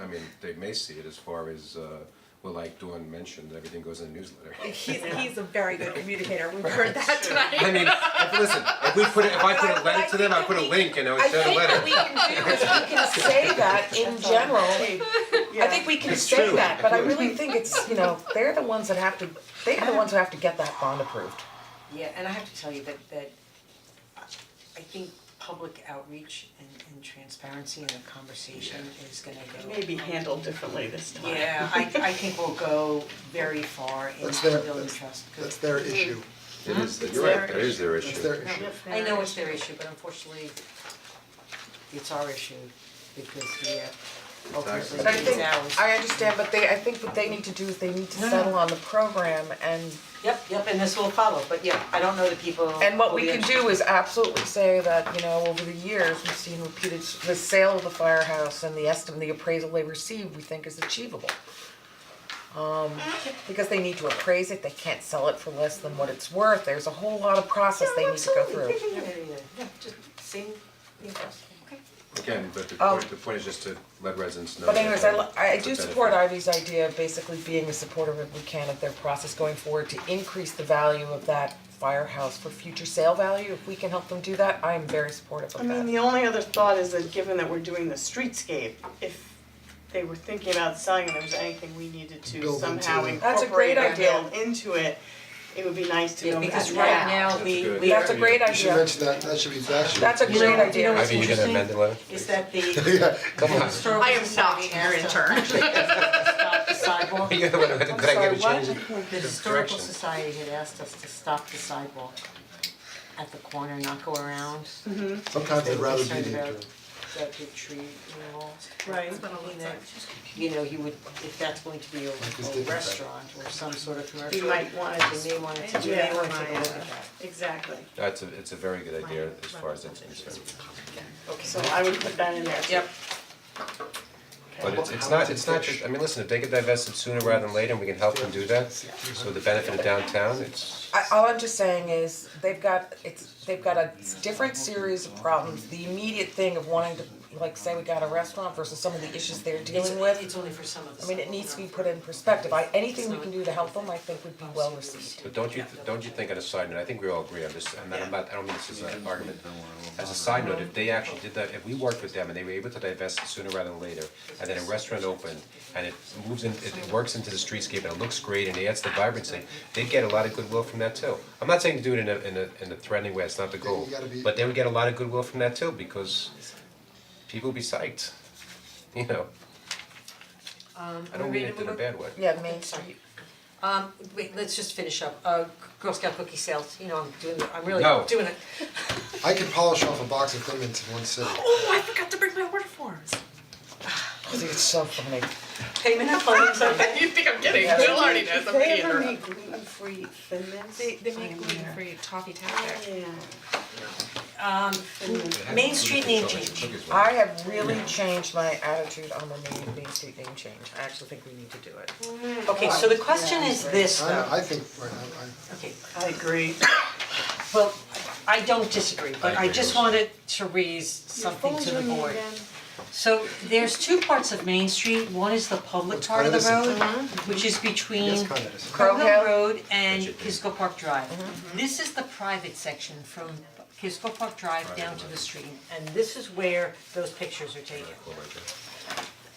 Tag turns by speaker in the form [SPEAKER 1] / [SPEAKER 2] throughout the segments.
[SPEAKER 1] I mean, they may see it as far as, uh, well, like Dawn mentioned, everything goes in the newsletter.
[SPEAKER 2] He's he's a very good communicator, we've heard that tonight.
[SPEAKER 1] I mean, if, listen, if we put, it- if I put a letter to them, I put a link and I would send a
[SPEAKER 3] I think what we
[SPEAKER 1] letter.
[SPEAKER 3] can do is we can say that in general, I think we can
[SPEAKER 1] It's
[SPEAKER 3] say
[SPEAKER 1] true.
[SPEAKER 3] that, but I really think it's, you know, they're the ones that have to, they are the ones who have to get that bond approved.
[SPEAKER 4] Yeah, and I have to tell you that that I think public outreach and and transparency and the conversation is gonna go.
[SPEAKER 5] Maybe handled differently this time.
[SPEAKER 4] Yeah, I I think we'll go very far in
[SPEAKER 6] That's their,
[SPEAKER 4] building
[SPEAKER 6] that's,
[SPEAKER 4] trust, 'cause-
[SPEAKER 6] that's their issue,
[SPEAKER 1] It is, you're right, that is their issue.
[SPEAKER 6] that's their issue.
[SPEAKER 4] I know it's their issue, but unfortunately, it's our issue because the uh, ultimately
[SPEAKER 3] But I
[SPEAKER 4] it's
[SPEAKER 3] think,
[SPEAKER 4] ours.
[SPEAKER 3] I understand, but they, I think what they need to do is they need to
[SPEAKER 4] No, no.
[SPEAKER 3] settle on the program and,
[SPEAKER 4] Yep, yep, and this will follow, but yeah, I don't know that people.
[SPEAKER 3] and what
[SPEAKER 4] will
[SPEAKER 3] we
[SPEAKER 4] be
[SPEAKER 3] can
[SPEAKER 4] under-
[SPEAKER 3] do is absolutely say that, you know, over the years, we've seen repeated, s- the sale of the firehouse and the estimate, the appraisal they received, we think is achievable. Um, because they need to appraise it, they can't sell it for less than what it's worth, there's a whole lot of process they need to go through.
[SPEAKER 4] Yeah, yeah, yeah, yeah, just same, yeah, okay.
[SPEAKER 1] Again, but the
[SPEAKER 3] Um,
[SPEAKER 1] point, the point is just to let residents know.
[SPEAKER 3] But
[SPEAKER 1] that,
[SPEAKER 3] anyways, I li-
[SPEAKER 1] um,
[SPEAKER 3] I I
[SPEAKER 1] it's a
[SPEAKER 3] do
[SPEAKER 1] benefit.
[SPEAKER 3] support Ivy's idea of basically being as supportive as we can of their process going forward to increase the value of that firehouse for future sale value. If we can help them do that, I am very supportive
[SPEAKER 5] I
[SPEAKER 3] of
[SPEAKER 5] mean,
[SPEAKER 3] that.
[SPEAKER 5] the only other thought is that given that we're doing the streetscape, if they were thinking about selling and there was anything we needed to
[SPEAKER 6] Build into
[SPEAKER 5] somehow
[SPEAKER 6] it.
[SPEAKER 3] That's a great
[SPEAKER 5] incorporate or
[SPEAKER 3] idea.
[SPEAKER 5] build into it, it would be nice to
[SPEAKER 4] Yeah,
[SPEAKER 5] know that
[SPEAKER 4] because
[SPEAKER 5] now.
[SPEAKER 4] right now,
[SPEAKER 1] That's
[SPEAKER 4] we,
[SPEAKER 1] good.
[SPEAKER 4] we are.
[SPEAKER 3] That's a great
[SPEAKER 6] You should
[SPEAKER 3] idea.
[SPEAKER 6] mention that, that should be, that should.
[SPEAKER 3] That's a
[SPEAKER 4] You know-
[SPEAKER 3] great idea.
[SPEAKER 4] You know what's
[SPEAKER 1] Ivy, you gonna
[SPEAKER 4] interesting?
[SPEAKER 1] amend the letter,
[SPEAKER 4] Is that the
[SPEAKER 6] Yeah, come on.
[SPEAKER 4] historical society has to stop the sidewalk.
[SPEAKER 1] You know, but- but I gotta
[SPEAKER 3] sorry, what?
[SPEAKER 1] change it.
[SPEAKER 4] The historical
[SPEAKER 1] Direction.
[SPEAKER 4] society had asked us to stop the sidewalk at the corner, not go around.
[SPEAKER 1] Mhm.
[SPEAKER 6] Sometimes
[SPEAKER 4] They
[SPEAKER 6] I'd
[SPEAKER 4] were
[SPEAKER 6] rather be
[SPEAKER 4] concerned
[SPEAKER 6] the
[SPEAKER 4] about
[SPEAKER 6] interim.
[SPEAKER 4] That big tree removal.
[SPEAKER 5] Right.
[SPEAKER 4] And that, you know, you would, if that's going to be a
[SPEAKER 6] just
[SPEAKER 4] a
[SPEAKER 6] did that.
[SPEAKER 4] restaurant or some sort of commercial.
[SPEAKER 5] You might wanna just-
[SPEAKER 4] They may wanna, take- they
[SPEAKER 5] Yeah.
[SPEAKER 4] may wanna take a
[SPEAKER 5] Yeah.
[SPEAKER 4] look at that.
[SPEAKER 5] Exactly,
[SPEAKER 1] That's a, it's a very good idea as far as that's concerned.
[SPEAKER 5] so I would put that in there too.
[SPEAKER 4] Yep.
[SPEAKER 1] But it's it's not, it's not just, I mean, listen, if they get divested sooner rather than later, and we can help them do that, so the benefit of downtown, it's,
[SPEAKER 3] I all I'm just saying is they've got it's they've got a different series of problems. The immediate thing of wanting to like say we got a restaurant versus some of the issues they're dealing with.
[SPEAKER 4] It's only for some of the.
[SPEAKER 3] I mean, it needs to be put in perspective. I anything we can do to help them, I think would be
[SPEAKER 4] Oh,
[SPEAKER 3] well received.
[SPEAKER 1] but don't you, don't you think on a side note, I think we all agree on this, and I'm not, I don't mean this as an argument. As a side note, if they actually did that, if we worked with them and they were able to divest it sooner rather than later, and then a restaurant opened, and it moves in, it it works into the streetscape and it looks great and it adds to the vibrancy, they'd get a lot of goodwill from that too. I'm not saying to do it in a, in a, in a threatening way, it's not the goal,
[SPEAKER 6] you gotta be-
[SPEAKER 1] but they would get a lot of goodwill from that too, because people would be psyched, you know? I don't mean it in a bad way.
[SPEAKER 3] Yeah, Main Street.
[SPEAKER 4] Um, wait, let's just finish up, uh, Girl Scout cookie sales, you know, I'm doing, the- I'm really
[SPEAKER 1] No.
[SPEAKER 4] doing it.
[SPEAKER 6] I could polish off a box of Clements in one sitting.
[SPEAKER 4] Oh, I forgot to bring my order forms.
[SPEAKER 3] I think it's so funny.
[SPEAKER 4] Payment of funds, okay.
[SPEAKER 7] You think I'm kidding? Bill already knows I'm
[SPEAKER 5] They
[SPEAKER 7] being
[SPEAKER 5] ever
[SPEAKER 7] interrupted.
[SPEAKER 5] make gluten-free thin mints?
[SPEAKER 7] They, they make gluten-free toffee tactic.
[SPEAKER 5] Yeah.
[SPEAKER 4] um, Main Street name change,
[SPEAKER 1] Cookies, right?
[SPEAKER 3] I have really changed my attitude on the main, main street name change. I actually think we need to do it.
[SPEAKER 4] okay, so the question is this
[SPEAKER 6] I,
[SPEAKER 4] though,
[SPEAKER 6] I think, right, I, I.
[SPEAKER 4] okay,
[SPEAKER 5] I agree.
[SPEAKER 4] well, I don't disagree, but
[SPEAKER 1] I
[SPEAKER 4] I
[SPEAKER 1] agree
[SPEAKER 4] just
[SPEAKER 1] also.
[SPEAKER 4] wanted to raise something to the board. So there's two parts of Main Street, one is the public
[SPEAKER 6] What's
[SPEAKER 4] part of the road,
[SPEAKER 6] Cognizant?
[SPEAKER 7] Uh-huh.
[SPEAKER 4] which is
[SPEAKER 6] Yes,
[SPEAKER 4] between
[SPEAKER 6] Cognizant.
[SPEAKER 4] Crow Hill
[SPEAKER 3] Hill.
[SPEAKER 4] Road and
[SPEAKER 1] Richard.
[SPEAKER 4] Kisco Park Drive.
[SPEAKER 7] Uh-huh.
[SPEAKER 4] This is the private section from Kisco Park Drive down to the stream, and this is where those pictures are taken.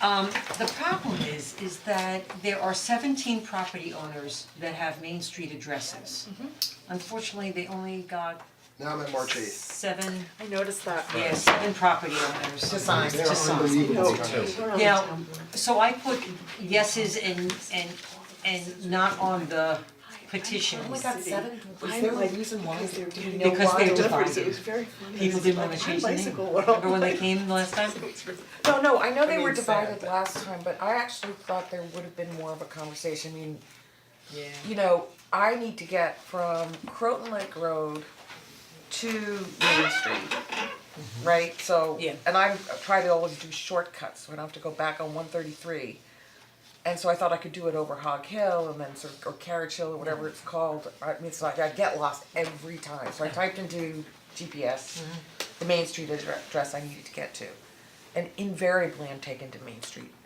[SPEAKER 4] Um, the problem is, is that there are seventeen property owners that have Main Street addresses.
[SPEAKER 7] Mm-hmm.
[SPEAKER 4] Unfortunately, they only got
[SPEAKER 6] Now I'm at March eighth.
[SPEAKER 4] seven,
[SPEAKER 7] I noticed that.
[SPEAKER 4] yeah, seven property owners.
[SPEAKER 3] Designs,
[SPEAKER 6] They're
[SPEAKER 4] designs.
[SPEAKER 6] unbelievable.
[SPEAKER 4] Now, so I put yeses and and and not on the petitions,
[SPEAKER 3] seven, is there a reason why, do we
[SPEAKER 4] because they're divided.
[SPEAKER 5] very funny.
[SPEAKER 4] People didn't wanna change the name,
[SPEAKER 5] Bicycle
[SPEAKER 4] remember when they
[SPEAKER 5] world.
[SPEAKER 4] came last time?
[SPEAKER 3] No, no, I know they were
[SPEAKER 5] mean, sad,
[SPEAKER 3] divided
[SPEAKER 5] but-
[SPEAKER 3] last time, but I actually thought there would have been more of a conversation, I mean,
[SPEAKER 4] Yeah.
[SPEAKER 3] you know, I need to get from Croton Lake Road to Main Street. Right, so,
[SPEAKER 4] Yeah.
[SPEAKER 3] and I try to always do shortcuts, so I don't have to go back on one thirty-three. And so I thought I could do it over Hog Hill and then sort of, or Carriage Hill or whatever it's called, I mean, it's like I get lost every time, so I typed into GPS the Main Street addre- address I needed to get to. And invariably I'm taken to Main Street,